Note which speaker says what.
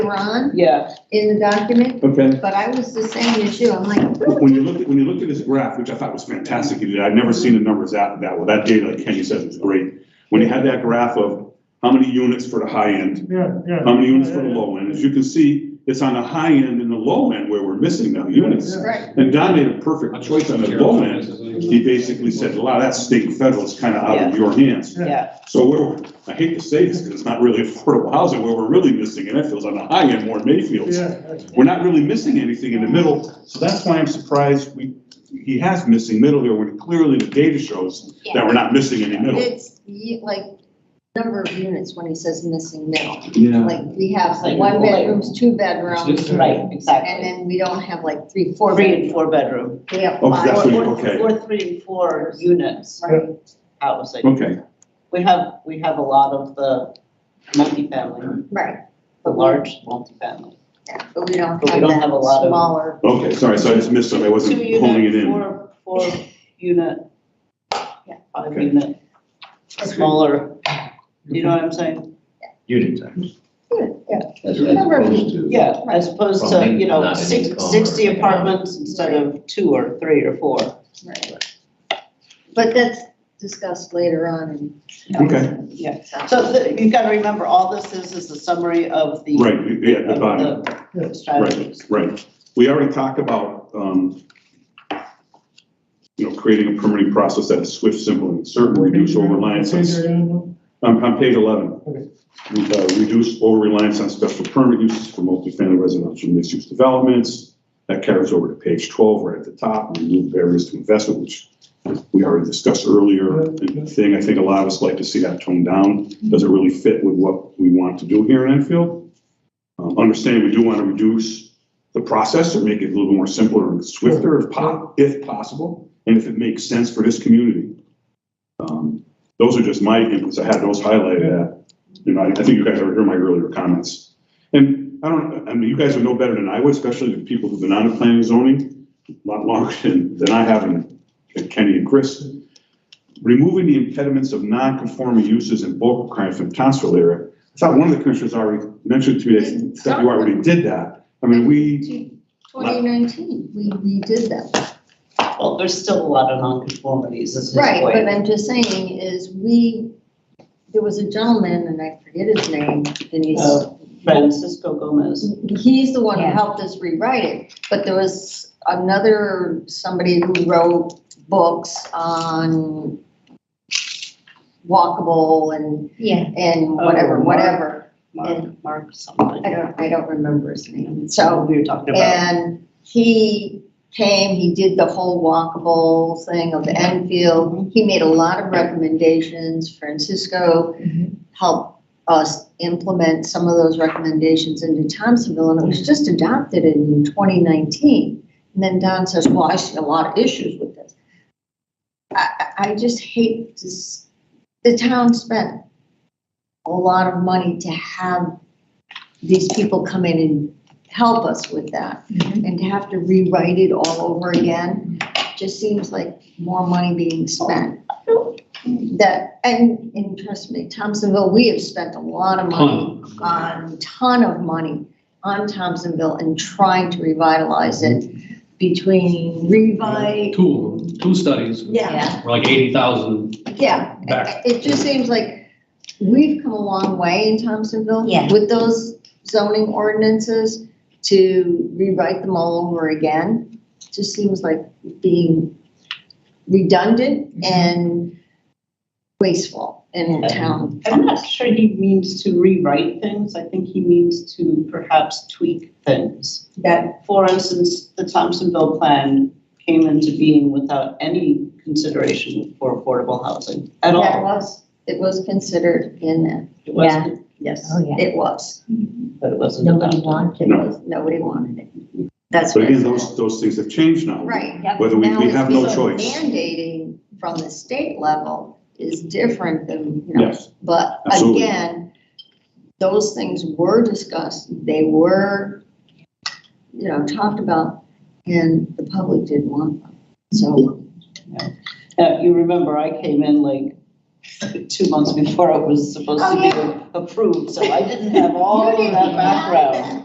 Speaker 1: later on
Speaker 2: Yeah,
Speaker 1: in the document,
Speaker 3: Okay,
Speaker 1: but I was the same as you, I'm like,
Speaker 3: when you look, at when you look at this graph, which I thought was fantastic, you did, I've never seen the numbers out that well, that data, like Kenny said, was great. When you had that graph of how many units for the high end,
Speaker 4: Yeah, yeah.
Speaker 3: how many units for the low end, as you can see, it's on the high end and the low end where we're missing now units.
Speaker 1: right,
Speaker 3: And Don made a perfect choice on the low end, he basically said, a lot of that state and federal is kind of out of your hands.
Speaker 2: yeah,
Speaker 3: So we're, I hate to say this because it's not really affordable housing, where we're really missing, and that feels on the high end more in Mayfield.
Speaker 4: Yeah,
Speaker 3: We're not really missing anything in the middle, so that's why I'm surprised we, he has missing middle here, when clearly the data shows that we're not missing any middle.
Speaker 1: it's ye- like, number of units when he says missing middle.
Speaker 3: Yeah.
Speaker 1: Like, we have
Speaker 2: Like,
Speaker 1: one
Speaker 2: like-
Speaker 1: bedrooms, two bedrooms,
Speaker 2: right,
Speaker 1: and
Speaker 2: exactly.
Speaker 1: then we don't have like three, four
Speaker 2: Three and
Speaker 1: bedrooms.
Speaker 2: four bedroom.
Speaker 1: We have
Speaker 3: Oh, that's
Speaker 1: five,
Speaker 2: Or-
Speaker 3: what you-
Speaker 2: or-
Speaker 3: okay.
Speaker 2: Or three and four units
Speaker 1: right?
Speaker 2: housing.
Speaker 3: Okay,
Speaker 2: We have, we have a lot of the multifamily,
Speaker 1: Right,
Speaker 2: the large multifamily.
Speaker 1: yeah, but we don't
Speaker 2: But we
Speaker 1: have
Speaker 2: don't have a
Speaker 1: that
Speaker 2: lot of-
Speaker 1: smaller.
Speaker 3: okay, sorry, so I just missed something, I wasn't
Speaker 2: Two
Speaker 3: honing it
Speaker 2: unit,
Speaker 3: in.
Speaker 2: four, four unit,
Speaker 1: Yeah.
Speaker 2: five
Speaker 3: Okay.
Speaker 2: unit, smaller, you know what I'm saying?
Speaker 5: Unit times.
Speaker 1: Yeah,
Speaker 5: As as opposed to.
Speaker 2: Yeah, as opposed to, you know,
Speaker 5: Not an
Speaker 2: six-
Speaker 5: income or-
Speaker 2: sixty apartments instead of two or three or four.
Speaker 1: right. But that's discussed later on in.
Speaker 3: Okay.
Speaker 2: Yeah. So th- you've got to remember, all this is, is a summary of the.
Speaker 3: Right, yeah, the bottom.
Speaker 2: Of the strategies.
Speaker 3: Right. We already talked about, um, you know, creating a permitting process that is swift, simple, and certain, reduce over reliance on, on, on page eleven.
Speaker 4: Okay.
Speaker 3: We, uh, Reduce over reliance on special permit uses for multifamily residential mixed-use developments. That carries over to page twelve, right at the top, remove barriers to investment, which we already discussed earlier. The Thing, I think a lot of us like to see that toned down. Does it really fit with what we want to do here in Enfield? Um, Understanding we do want to reduce the process or make it a little more simpler and swifter if po- if possible, and if it makes sense for this community. Um, Those are just my inputs, I had those highlighted, uh, you know, I I think you guys already heard my earlier comments. And I don't, I mean, you guys would know better than I would, especially the people who've been on the planning and zoning a lot longer than, than I have, and Kenny and Chris. Removing the impediments of non-conforming uses in bulk requirement from Townsville area. I thought one of the commissioners already mentioned to me that- that you already did that. I mean, we.
Speaker 1: Twenty nineteen, we, we did that.
Speaker 2: Well, there's still a lot of nonconformities, is his
Speaker 1: Right, but
Speaker 2: point.
Speaker 1: I'm just saying is we, there was a gentleman, and I forget his name, Denise.
Speaker 2: Uh, Francisco Gomez,
Speaker 1: He's the one who
Speaker 2: Yeah.
Speaker 1: helped us rewrite it, but there was another, somebody who wrote books on walkable and,
Speaker 6: Yeah,
Speaker 1: and whatever,
Speaker 2: Mark.
Speaker 1: whatever.
Speaker 2: Mark, Mark something.
Speaker 1: I don't, I don't remember his name, so.
Speaker 2: We were talking about.
Speaker 1: And he came, he did the whole walkable thing of the Enfield. He made a lot of recommendations. Francisco helped us implement some of those recommendations into Thompsonville, and it was just adopted in 2019. And then Don says, well, I see a lot of issues with this. I, I I just hate this, the town spent a lot of money to have these people come in and help us with that. And to have to rewrite it all over again, just seems like more money being spent. That, and, and trust me, Thompsonville, we have spent a lot of money, on ton of money on Thompsonville and trying to revitalize it between revi,
Speaker 7: Two, two studies, were
Speaker 1: yeah,
Speaker 7: like eighty thousand.
Speaker 1: yeah.
Speaker 7: Back.
Speaker 1: It just seems like we've come a long way in Thompsonville.
Speaker 6: Yeah.
Speaker 1: With those zoning ordinances to rewrite them all over again, just seems like being redundant
Speaker 3: Mm-hmm.
Speaker 1: and wasteful in a town.
Speaker 2: I'm not sure he means to rewrite things, I think he means to perhaps tweak things.
Speaker 1: That,
Speaker 2: For instance, the Thompsonville plan came into being without any consideration for affordable housing at
Speaker 1: that
Speaker 2: all.
Speaker 1: was, it was considered in that,
Speaker 2: It wasn't, yes,
Speaker 6: oh yeah.
Speaker 1: it was.
Speaker 2: but it wasn't
Speaker 6: Nobody
Speaker 2: adopted.
Speaker 6: wanted
Speaker 3: No.
Speaker 6: it.
Speaker 1: Nobody wanted it. That's.
Speaker 3: But
Speaker 1: what
Speaker 3: again, those, those things have changed now.
Speaker 1: Right.
Speaker 3: Whether we,
Speaker 1: Now
Speaker 3: we
Speaker 1: it's
Speaker 3: have no
Speaker 1: because
Speaker 3: choice.
Speaker 1: Mandating from the state level is different than, you know,
Speaker 3: Yes,
Speaker 1: But
Speaker 3: Absolutely.
Speaker 1: again, those things were discussed, they were, you know, talked about, and the public didn't want them. So,
Speaker 2: Uh, you remember, I came in like two months before it was supposed
Speaker 1: Oh,
Speaker 2: to be approved, so I didn't have all
Speaker 1: You
Speaker 2: of
Speaker 1: didn't
Speaker 2: that
Speaker 1: have
Speaker 2: background.